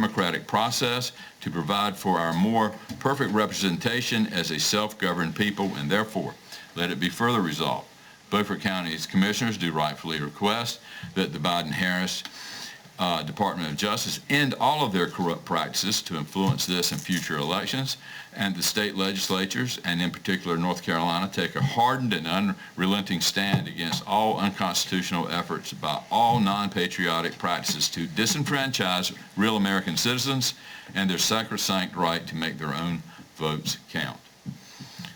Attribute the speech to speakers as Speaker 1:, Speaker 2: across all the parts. Speaker 1: democratic process to provide for our more perfect representation as a self-governed people, and therefore, let it be further resolved. Beaufort County's commissioners do rightfully request that the Biden-Harris uh, Department of Justice end all of their corrupt practices to influence this and future elections, and the state legislatures, and in particular North Carolina, take a hardened and unrelenting stand against all unconstitutional efforts by all non-patriotic practices to disenfranchise real American citizens and their sacrosanct right to make their own votes count.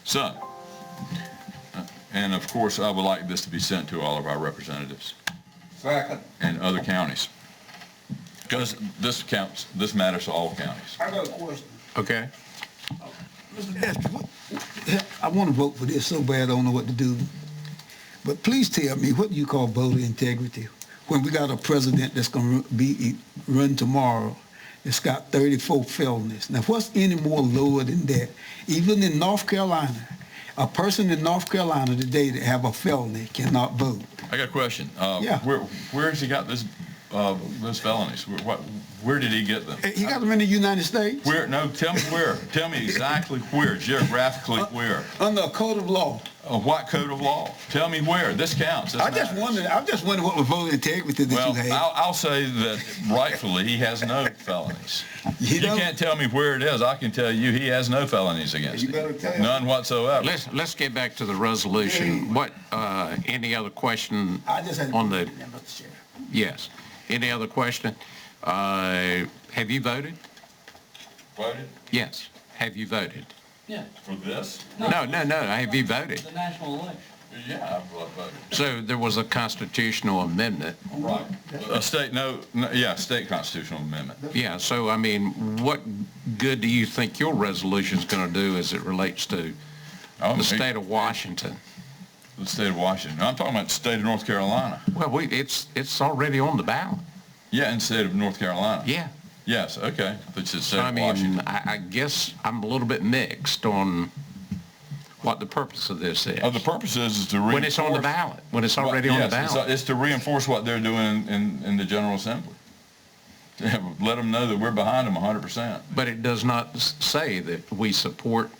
Speaker 1: So, uh, and of course, I would like this to be sent to all of our representatives
Speaker 2: Second.
Speaker 1: and other counties. Because this counts, this matters to all counties.
Speaker 2: I got a question.
Speaker 3: Okay.
Speaker 4: Mr. Pastor, what- I want to vote for this so bad, I don't know what to do. But please tell me, what do you call voter integrity? When we got a president that's going to be, run tomorrow, that's got 34 felonies. Now, what's any more lower than that? Even in North Carolina, a person in North Carolina today that have a felony cannot vote.
Speaker 1: I got a question. Uh,
Speaker 4: Yeah.
Speaker 1: Where, where's he got this, uh, those felonies? Where, what, where did he get them?
Speaker 4: He got them in the United States
Speaker 1: Where, no, tell me where. Tell me exactly where,
Speaker 4: Uh,
Speaker 1: geographically where.
Speaker 4: under a code of law.
Speaker 1: A what code of law? Tell me where. This counts. This
Speaker 4: I just
Speaker 1: matters.
Speaker 4: wondered, I just wondered what was voter integrity that you
Speaker 1: Well,
Speaker 4: had.
Speaker 1: I'll, I'll say that rightfully, he has no felonies.
Speaker 4: You
Speaker 1: You
Speaker 4: know-
Speaker 1: can't tell me where it is. I can tell you he has no felonies against
Speaker 2: You
Speaker 1: him.
Speaker 2: better tell him.
Speaker 1: None whatsoever.
Speaker 3: Let's, let's get back to the resolution. What, uh, any other question
Speaker 4: I just had.
Speaker 3: on the,
Speaker 4: Mr. Chair.
Speaker 3: yes. Any other question? Uh, Have you voted?
Speaker 1: Voted
Speaker 3: Yes. Have you voted?
Speaker 5: Yeah,
Speaker 1: for this?
Speaker 3: No, no, no. Have you voted?
Speaker 5: the national election.
Speaker 1: Yeah, I voted.
Speaker 3: So there was a constitutional amendment.
Speaker 1: Right. A state, no, no, yeah, state constitutional amendment.
Speaker 3: Yeah, so I mean, what good do you think your resolution's going to do as it relates to
Speaker 1: Oh,
Speaker 3: the state of Washington?
Speaker 1: The state of Washington. I'm talking about the state of North Carolina.
Speaker 3: Well, we, it's, it's already on the ballot.
Speaker 1: Yeah, and state of North Carolina.
Speaker 3: Yeah.
Speaker 1: Yes, okay. Which is state
Speaker 3: I
Speaker 1: of
Speaker 3: mean,
Speaker 1: Washington.
Speaker 3: I, I guess I'm a little bit mixed on what the purpose of this is.
Speaker 1: Oh, the purpose is is to reinforce.
Speaker 3: uh, When it's on the ballot, when it's already on the
Speaker 1: Yes, it's- uh,
Speaker 3: ballot.
Speaker 1: It's to reinforce what they're doing in, in the General Assembly. To have- Let them know that we're behind them 100%.
Speaker 3: But it does not s- say that we support,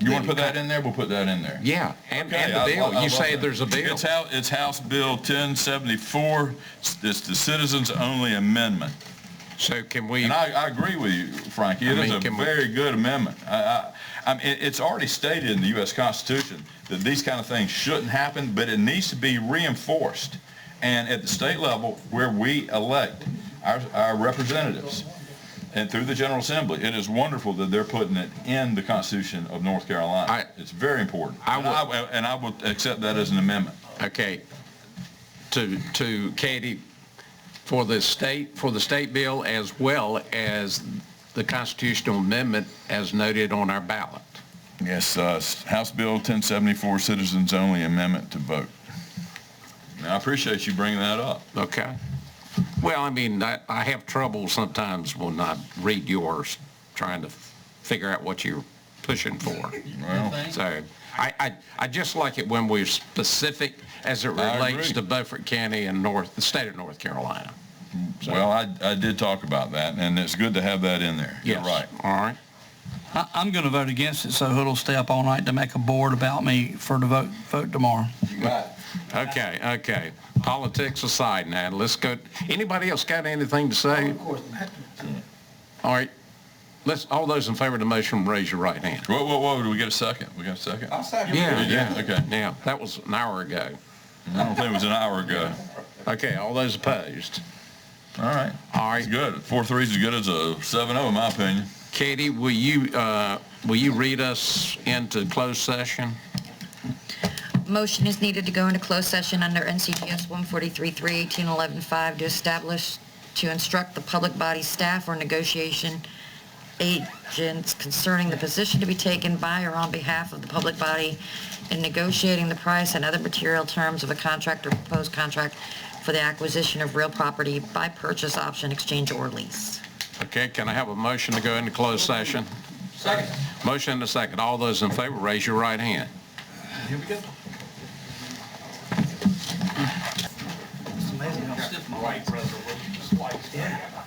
Speaker 1: You want to
Speaker 3: Yeah,
Speaker 1: put that in there? We'll put that in there.
Speaker 3: yeah, and, and
Speaker 1: Okay, I-
Speaker 3: the
Speaker 1: I-
Speaker 3: bill.
Speaker 1: I
Speaker 3: You
Speaker 1: love
Speaker 3: say
Speaker 1: that.
Speaker 3: there's a bill.
Speaker 1: It's House, it's House Bill 1074. It's it's the Citizens Only Amendment.
Speaker 3: So can we,
Speaker 1: And I, I agree with you, Frankie. It
Speaker 3: I
Speaker 1: is
Speaker 3: mean,
Speaker 1: a
Speaker 3: can we-
Speaker 1: very good amendment. I, I, I mean, it- it's already stated in the U.S. Constitution that these kind of things shouldn't happen, but it needs to be reinforced. And at the state level, where we elect our, our representatives and through the General Assembly, it is wonderful that they're putting it in the Constitution of North Carolina.
Speaker 3: I-
Speaker 1: it's very important.
Speaker 3: I
Speaker 1: and, I, and I would accept that as an amendment.
Speaker 3: okay, to, to Katie, for the state, for the state bill as well as the constitutional amendment as noted on our ballot.
Speaker 1: Yes, uh, House Bill 1074, Citizens Only Amendment to vote. Now, I appreciate you bringing that up.
Speaker 3: Okay. Well, I mean, I, I have trouble sometimes when I read yours, trying to f- figure out what you're pushing for.
Speaker 1: Well,
Speaker 3: So I, I, I just like it when we're specific as it
Speaker 1: I agree.
Speaker 3: relates to Beaufort County and North, the state of North Carolina.
Speaker 1: well, I, I did talk about that, and it's good to have that in there. You're
Speaker 3: Yes.
Speaker 1: right.
Speaker 3: All right.
Speaker 5: I, I'm going to vote against it, so Hood'll stay up all night to make a board about me for to vote, vote tomorrow.
Speaker 3: Okay, okay. Politics aside now, let's go, anybody else got anything to say? All right. Let's, all those in favor of the motion, raise your right hand.
Speaker 1: Whoa, whoa, whoa, do we get a second? We got a second?
Speaker 2: I second.
Speaker 3: Yeah,
Speaker 1: Did you?
Speaker 3: yeah.
Speaker 1: Okay.
Speaker 3: Yeah, that was an hour ago.
Speaker 1: I don't think it was an hour ago.
Speaker 3: Okay, all those opposed?
Speaker 1: All right.
Speaker 3: All right.
Speaker 1: It's good. Four three's as good as a seven oh, in my opinion.
Speaker 3: Katie, will you, uh, will you read us into closed session?
Speaker 6: Motion is needed to go into closed session under NCGS 143-318-11-5 to establish, to instruct the public body staff or negotiation agents concerning the position to be taken by or on behalf of the public body in negotiating the price and other material terms of a contract or proposed contract for the acquisition of real property by purchase, option, exchange, or lease.
Speaker 3: Okay, can I have a motion to go into closed session?
Speaker 2: Second.
Speaker 3: Motion and a second. All those in favor, raise your right hand.
Speaker 2: Here we go.
Speaker 5: Amazing how stiff my